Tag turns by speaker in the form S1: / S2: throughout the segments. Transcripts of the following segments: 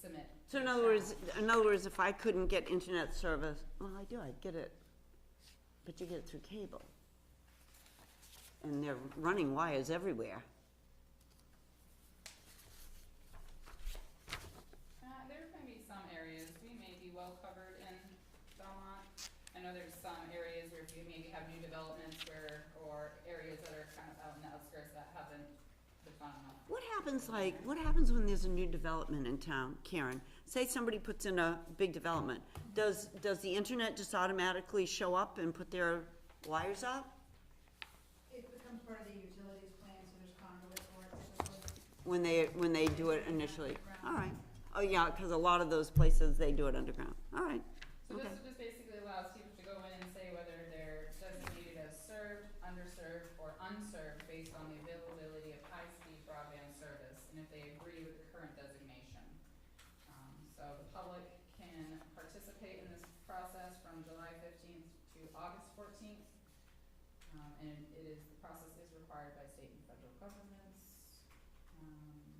S1: submit.
S2: So in
S1: the
S2: other
S1: challenge.
S2: words, in other words, if I couldn't get internet service, well, I do, I get it, but you get it through cable. And they're running wires everywhere.
S1: Uh, there can be some areas, we may be well covered in Belmont. I know there's some areas where you maybe have new developments where, or areas that are kind of out in the outskirts that haven't been found enough.
S2: What happens like, what happens when there's a new development in town, Karen? Say somebody puts in a big development, does, does the internet just automatically show up and put their wires up?
S3: It becomes part of the utilities plan, so there's conduit for it. typically.
S2: When they, when they do it initially, all right. Oh, yeah, cause a lot of those places, they do it underground, all right,
S1: So this
S2: Okay.
S1: just basically allows people to go in and say whether they're designated as served, underserved, or unserved based on the availability of high-speed broadband service, and if they agree with the current designation. Um, so the public can participate in this process from July fifteenth to August fourteenth. Um, and it is, the process is required by state and federal governments. Um,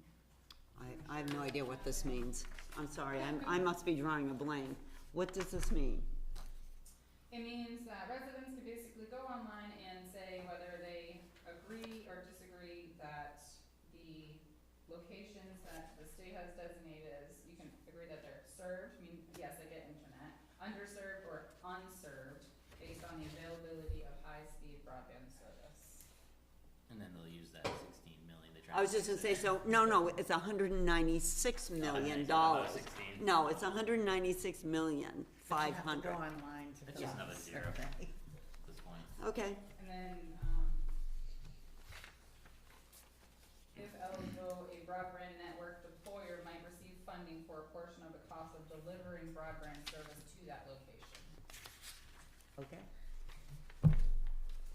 S2: I, I have no idea what this means. I'm sorry, I'm, I must be drawing a blank. What does this mean?
S1: It means that residents can basically go online and say whether they agree or disagree that the locations that the state has designated as, you can agree that they're served, I mean, yes, I get internet, underserved or unserved based on the availability of high-speed broadband service.
S4: And then they'll use that sixteen million to try.
S2: I was just gonna say, so, no, no, it's hundred and ninety-six million dollars. No, it's a hundred and ninety-six million, five hundred.
S5: But you have to go online to
S4: It's
S5: fill
S4: just
S5: out
S4: another
S5: the
S4: zero.
S5: survey.
S4: At this point.
S2: Okay,
S1: And then, um, if eligible, a broadband network deployer might receive funding for a portion of the cost of delivering broadband service to that location.
S5: Okay.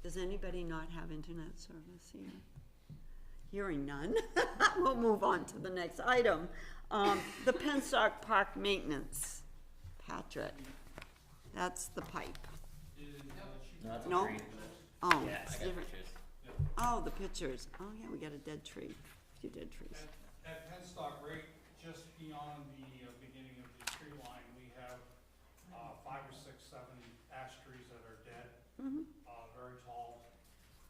S2: does anybody not have internet service here? Hearing none, we'll move on to the next item. Um, the Penstock Park Maintenance, Patrick, that's the pipe.
S4: No, it's a
S2: No?
S4: tree.
S2: Oh,
S4: Yeah,
S2: it's
S4: I got
S2: different.
S4: pictures.
S2: Oh, the pictures. Oh, yeah, we got a dead tree, a few dead trees.
S6: At, at Penstock, right just beyond the uh, beginning of the tree line, we have, uh, five or six, seven ash trees that are dead,
S2: Mhm.
S6: uh, very tall.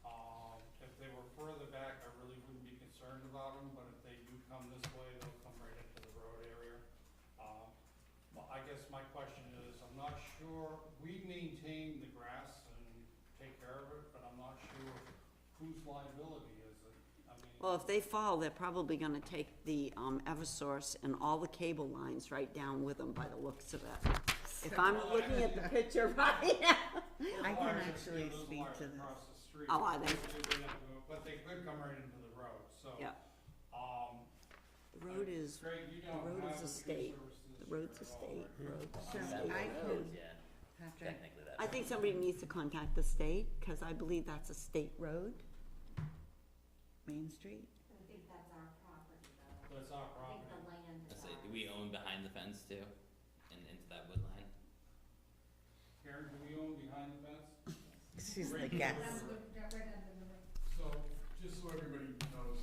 S6: Um, if they were further back, I really wouldn't be concerned about them, but if they do come this way, they'll come right into the road area. Um, well, I guess my question is, I'm not sure, we maintain the grass and take care of it, but I'm not sure whose liability is it, I mean.
S2: Well, if they fall, they're probably gonna take the, um, Eversource and all the cable lines right down with them by the looks of it. If I'm looking at the picture right now.
S5: I can
S6: Wires,
S5: actually
S6: yeah, those
S5: speak
S6: wires
S5: to this.
S6: Across the street.
S2: Oh, are they?
S6: wouldn't have to go- But they could come right into the road, so.
S2: Yeah,
S6: Um.
S2: the road is,
S6: Greg, you don't
S2: road
S6: have
S2: is a
S6: tree
S2: state.
S6: services
S2: the road's a
S6: at all,
S2: state
S6: right?
S2: road.
S5: So
S4: That
S5: I
S4: road,
S5: can,
S4: yeah,
S5: Patrick,
S4: technically that.
S2: I think somebody needs to contact the state, cause I believe that's a state road.
S5: Main Street?
S3: I think that's our property though.
S6: But it's our
S3: I think the
S6: property.
S3: land is
S4: That's
S3: ours.
S4: it. We own behind the fence too, and into that wood line.
S6: Karen, do we own behind the fence?
S5: She's the
S6: Right here.
S5: guest.
S3: That's what- that right under the roof.
S7: So, just so everybody knows,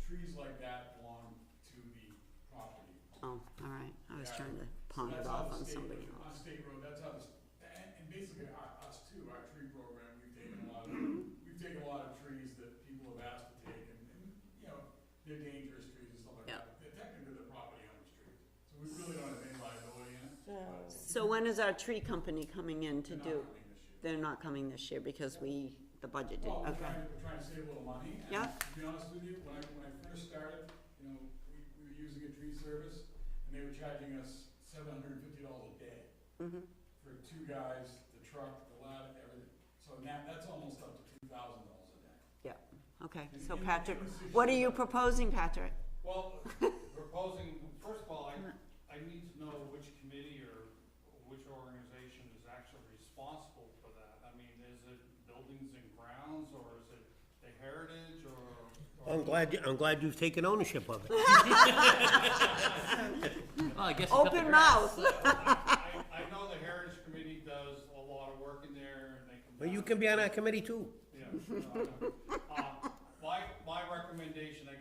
S7: trees like that belong to the property.
S2: Oh, all right, I was
S7: Yeah.
S2: trying to
S7: So
S2: pawn it
S7: that's how
S2: off
S7: the
S2: on
S7: state-
S2: somebody
S7: On
S2: else.
S7: state road, that's how this, and, and basically our, us too, our tree program, we've taken a lot of, we've taken a lot of trees that people have asked to take and, and, you know, they're dangerous trees and stuff like
S2: Yeah.
S7: that. They're technically the property owner's trees, so we really don't have any liability in it, but.
S2: So when is our tree company coming in to
S7: they're not
S2: do?
S7: coming this year.
S2: They're not coming this year because we, the budget did,
S7: Well,
S6: Oh,
S7: we're
S2: okay.
S7: trying, we're trying to save a little money, and
S2: Yeah.
S7: to be honest with you, when I, when I first started, you know, we, we were using a tree service, and they were charging us seven hundred and fifty dollars a day
S2: Mm-hmm,
S7: for two guys, the truck, the ladder, everything, so now, that's almost up to two thousand dollars a day.
S2: okay,
S7: And
S2: so
S7: in the-
S2: Patrick,
S7: in the six
S2: what are
S7: years
S2: you
S7: that-
S2: proposing, Patrick?
S6: Well, proposing, first of all, I, I need to know which committee or which organization is actually responsible for that. I mean, is it buildings and grounds, or is it the heritage, or? or-
S8: I'm glad, I'm glad you've taken ownership of it.
S4: Well, I guess you cut the
S2: Open
S4: grass.
S2: mouth.
S6: I, I know the heritage committee does a lot of work in there, and they can.
S8: Well, you can be on our committee too.
S6: Yeah, no, I know. Uh, My, my recommendation, I